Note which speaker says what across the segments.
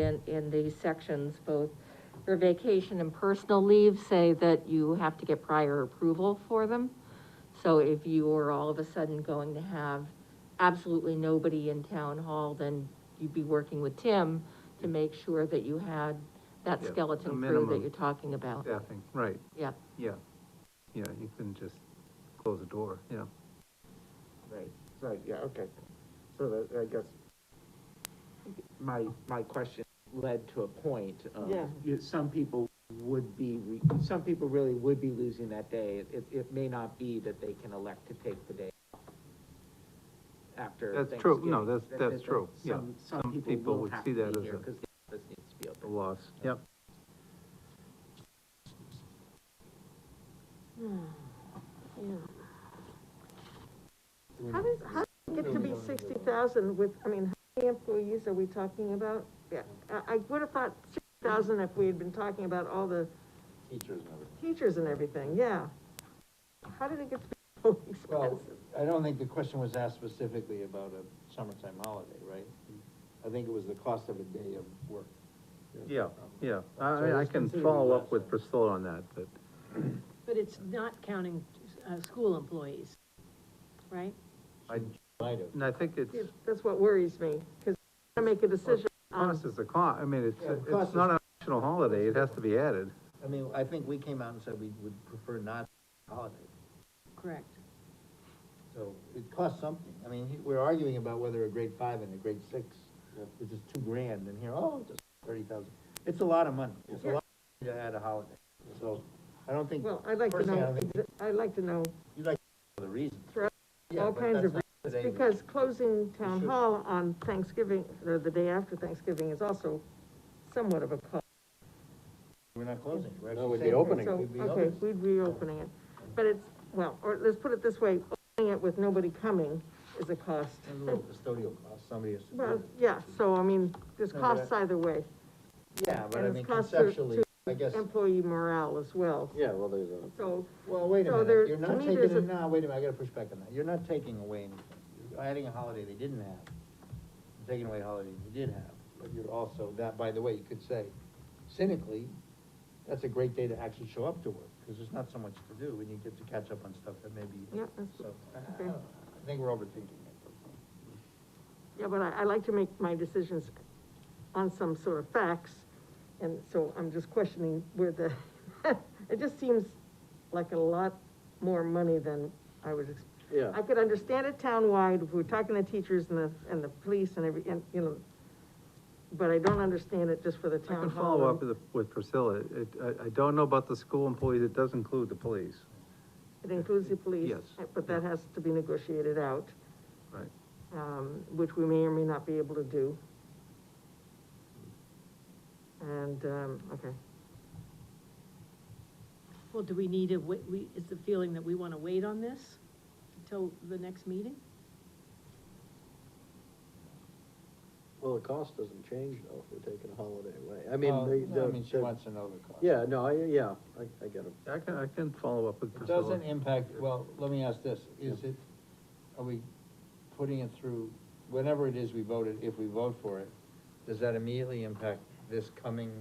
Speaker 1: in, in these sections, both for vacation and personal leave, say that you have to get prior approval for them. So if you are all of a sudden going to have absolutely nobody in town hall, then you'd be working with Tim to make sure that you had that
Speaker 2: Yeah, a
Speaker 1: skeleton crew that
Speaker 2: minimum.
Speaker 1: you're talking about.
Speaker 2: Staffing, right,
Speaker 1: Yeah,
Speaker 2: yeah, yeah, you couldn't just close the door, yeah.
Speaker 3: Right, so, yeah, okay. So that, I guess, my, my question led to a point. um,
Speaker 4: Yeah.
Speaker 3: you- Some people would be, re- some people really would be losing that day. It- It, it may not be that they can elect to take the day off after
Speaker 2: That's true. No,
Speaker 3: Thanksgiving.
Speaker 2: that's-
Speaker 3: That-
Speaker 2: that's
Speaker 3: that-
Speaker 2: true. Yeah.
Speaker 3: Some, some people will
Speaker 2: would
Speaker 3: have
Speaker 2: see
Speaker 3: to
Speaker 2: that
Speaker 3: be
Speaker 2: as
Speaker 3: here
Speaker 2: a-
Speaker 3: because the office needs to be
Speaker 2: The
Speaker 3: open.
Speaker 2: loss, yep.
Speaker 4: How does, how does it get to be sixty thousand with, I mean, how many employees are we talking about? Yeah, I, I would have thought sixty thousand if we had been talking about all the. Teachers and everything. yeah. How did it get to be so
Speaker 5: Well,
Speaker 4: expensive?
Speaker 5: I don't think the question was asked specifically about a summertime holiday, right? I think it was the cost of a day of work.
Speaker 2: Yeah, yeah,
Speaker 5: So
Speaker 2: I, I
Speaker 5: it's
Speaker 2: can
Speaker 5: considered
Speaker 2: follow
Speaker 5: less
Speaker 2: up with
Speaker 5: than-
Speaker 2: Priscilla on that, but,
Speaker 6: But it's not counting, uh, school employees, right?
Speaker 5: Might have.
Speaker 2: and I think it's,
Speaker 4: Yeah, That's what worries me, because I make a decision on,
Speaker 2: cost is the cost, I mean, it's,
Speaker 5: um, Yeah, the cost
Speaker 2: it's
Speaker 5: is-
Speaker 2: not an optional holiday, it has to be added.
Speaker 5: I mean, I think we came out and said we would prefer not holiday,
Speaker 6: Correct.
Speaker 5: so it costs something. I mean, he- we're arguing about whether a grade five and a grade six, which is two grand, and here, oh, just thirty thousand. It's a lot of money, it's a lot of money to add a holiday, so I don't think,
Speaker 4: well, I'd like to
Speaker 5: Personally, I
Speaker 4: know,
Speaker 5: don't think-
Speaker 4: exa- I'd like to know
Speaker 5: you like the reasons.
Speaker 4: For all
Speaker 5: Yeah,
Speaker 4: all
Speaker 5: but
Speaker 4: kinds
Speaker 5: that's
Speaker 4: of
Speaker 5: not
Speaker 4: reasons,
Speaker 5: today.
Speaker 4: because closing town
Speaker 5: should-
Speaker 4: hall on Thanksgiving, or the day after Thanksgiving is also somewhat of a cost.
Speaker 5: We're not closing. We're
Speaker 7: No,
Speaker 5: actually
Speaker 7: we'd be
Speaker 5: saying-
Speaker 7: opening.
Speaker 4: So,
Speaker 5: We'd be
Speaker 4: okay,
Speaker 5: opening.
Speaker 4: we'd be opening it, but it's, well, or let's put it this way, opening it with nobody coming is a cost.
Speaker 5: There's a little custodial cost, somebody has to do
Speaker 4: Well,
Speaker 5: it.
Speaker 4: yeah, so I mean, there's
Speaker 5: No, but
Speaker 4: costs either way,
Speaker 5: Yeah, but
Speaker 4: and
Speaker 5: I
Speaker 4: it's
Speaker 5: mean,
Speaker 4: cost to-
Speaker 5: conceptually,
Speaker 4: to
Speaker 5: I guess,
Speaker 4: employee morale as well,
Speaker 7: Yeah, well, there's a.
Speaker 4: so,
Speaker 5: well, wait a
Speaker 4: so there-
Speaker 5: minute, you're
Speaker 4: to
Speaker 5: not
Speaker 4: me,
Speaker 5: taking,
Speaker 4: there's
Speaker 5: it-
Speaker 4: a-
Speaker 5: no, wait a minute, I gotta push back on that, you're not taking away anything. You're adding a holiday they didn't have, You're taking away a holiday they did have, but you're also, that, by the way, you could say cynically, that's a great day to actually show up to work, because there's not so much to do, and you get to catch up on stuff that maybe,
Speaker 4: yeah, that's-
Speaker 5: so, I- I
Speaker 4: okay.
Speaker 5: don't know. I think we're overthinking it.
Speaker 4: yeah, but I, I like to make my decisions on some sort of facts, and so I'm just questioning where the, it just seems like a lot more money than I was expecting.
Speaker 7: Yeah.
Speaker 4: I could understand it townwide, if we're talking to teachers and the, and the police and every, and, you know, but I don't understand it just for the
Speaker 2: I
Speaker 4: town
Speaker 2: can
Speaker 4: hall.
Speaker 2: follow up with, with Priscilla, it, I, I don't know about the school employees, it does include the police,
Speaker 4: It includes the police. eh,
Speaker 2: Yes.
Speaker 4: But that has to be negotiated out,
Speaker 2: right?
Speaker 4: um, which we may or may not be able to do. And, um, okay,
Speaker 6: Well, do we need a, wa- we, is the feeling that we wanna wait on this until the next meeting?
Speaker 7: Well, the cost doesn't change though, if we're taking a holiday away. I
Speaker 5: Well,
Speaker 7: mean, the,
Speaker 5: Oh, I
Speaker 7: the.
Speaker 5: mean, she
Speaker 7: the-
Speaker 5: wants to know the cost.
Speaker 7: Yeah, no, I, yeah, I, I get it.
Speaker 2: I can, I can follow up with
Speaker 5: It
Speaker 2: Priscilla.
Speaker 5: doesn't impact, well, let me ask this, is it, are we putting it through, whatever it is we voted, if we vote for it, does that immediately impact this coming,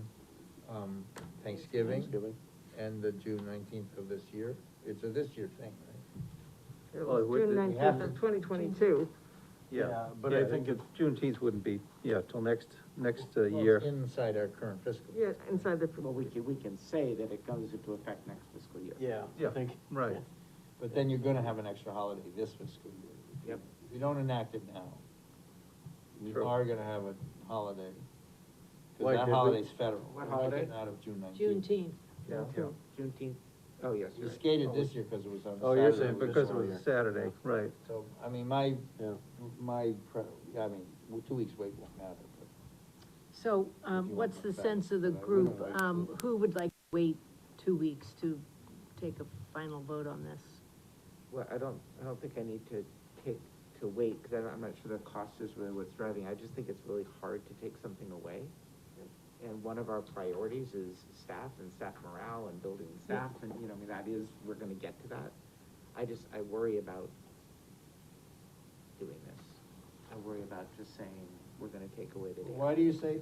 Speaker 5: um, Thanksgiving?
Speaker 7: Thanksgiving.
Speaker 5: And the June nineteenth of this year? It's a this year thing, right?
Speaker 4: it
Speaker 2: Well,
Speaker 4: was
Speaker 2: it would-
Speaker 4: June
Speaker 2: we
Speaker 4: nineteenth
Speaker 5: have
Speaker 4: of
Speaker 5: to-
Speaker 4: twenty twenty-two,
Speaker 2: Yeah, but I think it's, Juneteenth wouldn't be, yeah, till next, next uh,
Speaker 5: Well,
Speaker 2: year.
Speaker 5: Inside our current fiscal.
Speaker 4: yeah, inside the,
Speaker 3: Well, we can, we can say that it goes into effect next fiscal year.
Speaker 7: Yeah.
Speaker 2: Yeah, right.
Speaker 5: But then you're gonna have an extra holiday this fiscal year.
Speaker 3: Yep.
Speaker 5: If you don't enact it now, you
Speaker 2: True.
Speaker 5: are gonna have a holiday.
Speaker 7: Why
Speaker 5: Cause that
Speaker 7: did we-
Speaker 5: holiday's federal.
Speaker 3: What
Speaker 5: We're taking
Speaker 3: holiday?
Speaker 5: it Out of June nineteenth.
Speaker 6: Juneteenth.
Speaker 2: Yeah.
Speaker 3: Juneteenth, oh, yes, you're
Speaker 5: You
Speaker 3: right.
Speaker 5: skated this year because it was on Saturday.
Speaker 7: Oh, you're
Speaker 2: Yeah,
Speaker 7: saying
Speaker 2: Because it
Speaker 7: Fiscal
Speaker 2: was
Speaker 7: year.
Speaker 2: a Saturday, right.
Speaker 5: So, I mean, my,
Speaker 7: Yeah.
Speaker 5: my, pre- I mean, w- two weeks wait won't matter, but
Speaker 6: So,
Speaker 5: If
Speaker 6: um,
Speaker 5: you
Speaker 6: what's
Speaker 5: want
Speaker 6: the
Speaker 5: that,
Speaker 6: sense of the
Speaker 5: but I
Speaker 6: group?
Speaker 5: wouldn't wait
Speaker 6: Um, who would like to wait two weeks to take a final vote on this?
Speaker 3: Oh, Well, I don't, I don't think I need to take, to wait, because I'm not sure the cost is really what's driving, I just think it's really hard to take something away. And one of our priorities is staff and staff morale and building staff, and, you know, I mean, that is, we're gonna get to that. I just, I worry about doing this, I worry about just saying, we're gonna take away the day.
Speaker 5: why do you say